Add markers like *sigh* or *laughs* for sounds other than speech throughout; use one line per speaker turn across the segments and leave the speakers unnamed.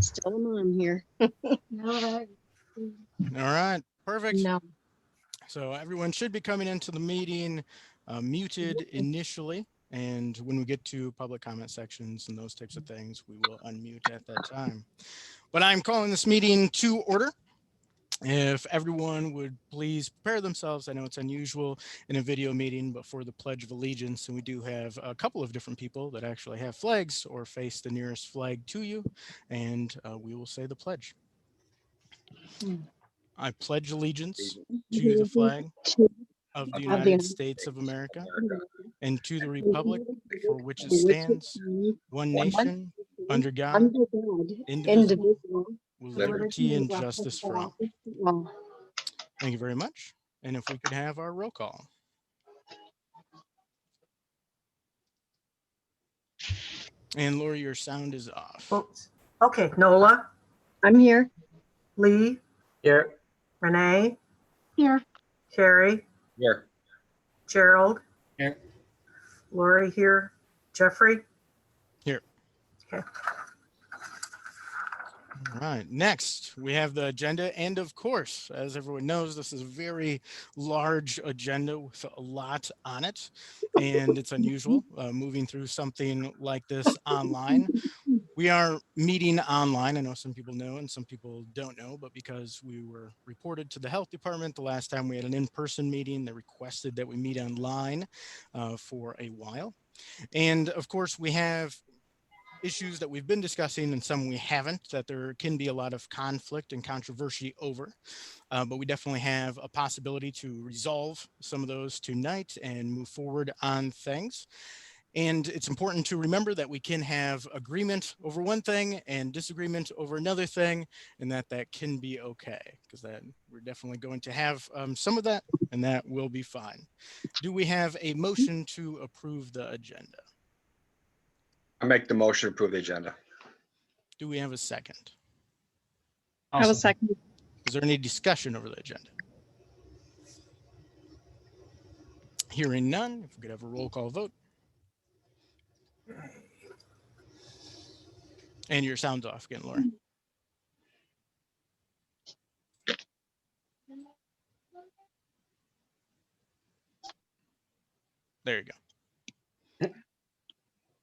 Still a mom here.
No,
All right, perfect.
no.
So everyone should be coming into the meeting uh, muted initially. And when we get to public comment sections and those types of things, we will unmute at that time. But I'm calling this meeting to order. If everyone would please prepare themselves, I know it's unusual in a video meeting, but for the Pledge of Allegiance, and we do have a couple of different people that actually have flags or face the nearest flag to you, and uh, we will say the pledge.
Hmm.
I pledge allegiance to the flag Mm-hmm. of the
the
United
United
States of America
America,
and to the republic for which
For which
it
it
stands, one
one
nation, under God,
Under God,
indivisible,
indivisible.
with
liberty
liberty and justice for all.
all.
Thank you very much. And if we could have our roll call. And Lori, your sound is off.
Oops. Oh, Okay, Nola,
I'm here.
Lee,
Here.
Renee,
Here,
Carrie,
Here.
Gerald.
Here.
Lori here, Jeffrey.
All right, next we have the agenda. And of course, as everyone knows, this is a very large agenda with a lot on it. And it's unusual uh, moving through something like this online. We are meeting online. I know some people know and some people don't know, but because we were reported to the health department the last time we had an in person meeting, they requested that we meet online uh, for a while. And of course, we have issues that we've been discussing and some we haven't that there can be a lot of conflict and controversy over Uh, but we definitely have a possibility to resolve some of those tonight and move forward on things and it's important to remember that we can have agreement over one thing and disagreement over another thing and that that can be okay because that we're definitely going to have um, some of that and that will be fine do we have a motion to approve the agenda
I make the motion to approve the agenda.
do we have a second
I was second.
Is there any discussion over the agenda? Hearing none, if we could have a roll call vote. And your sound's off again, Laura. There you go.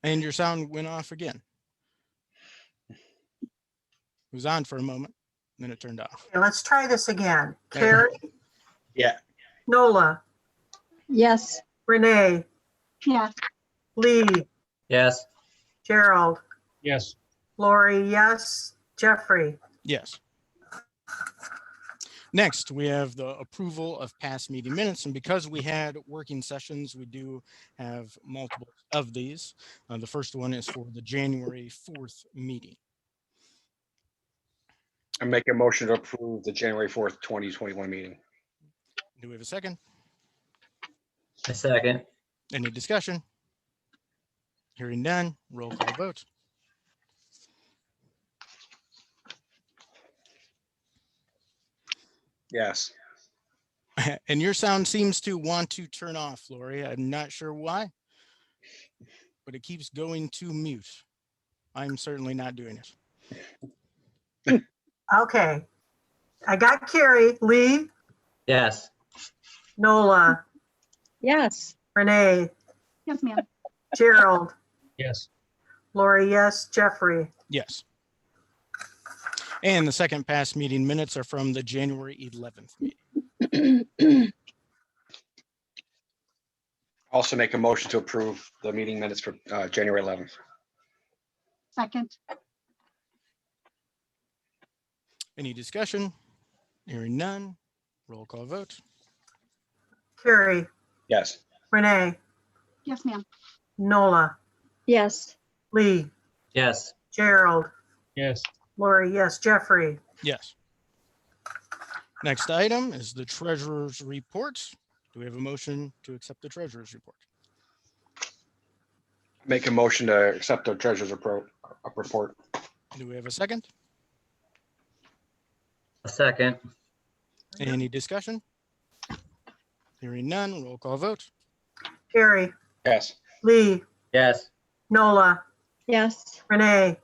And your sound went off again. It was on for a moment, then it turned off.
Okay, let's try this again.
There we go.
Carrie,
Yeah.
Nola,
Yes.
Renee,
yeah,
Lee,
Yes.
Gerald,
Yes.
Lori, yes, Jeffrey.
Yes. Next, we have the approval of past meeting minutes, and because we had working sessions, we do have multiple of these. Uh, the first one is for the January fourth meeting.
I make a motion to approve the January fourth, twenty twenty-one meeting.
Do we have a second?
A second.
Any discussion? Hearing none, roll call vote. *laughs*
Yes.
And your sound seems to want to turn off, Lori. I'm not sure why. But it keeps going to mute. I'm certainly not doing it.
Okay. I got Carrie, Lee,
Yes.
Nola,
Yes.
Renee,
yes, ma'am.
Gerald,
Yes.
Lori, yes, Jeffrey.
Yes. And the second past meeting minutes are from the January 11th meeting.
Also make a motion to approve the meeting minutes for uh, January eleventh.
Second,
Any discussion? Hearing none. Roll call vote.
Carrie,
Yes.
Renee,
yes, ma'am.
Nola,
Yes.
Lee,
Yes.
Gerald,
Yes.
Lori, yes, Jeffrey.
Yes. Next item is the treasurer's report. Do we have a motion to accept the treasurer's report?
Make a motion to accept the treasurer's repro- uh, report.
Do we have a second?
A second.
Any discussion? Hearing none. Roll call vote.
Carrie,
Yes.
Lee,
Yes.
Nola,
Yes.
Renee,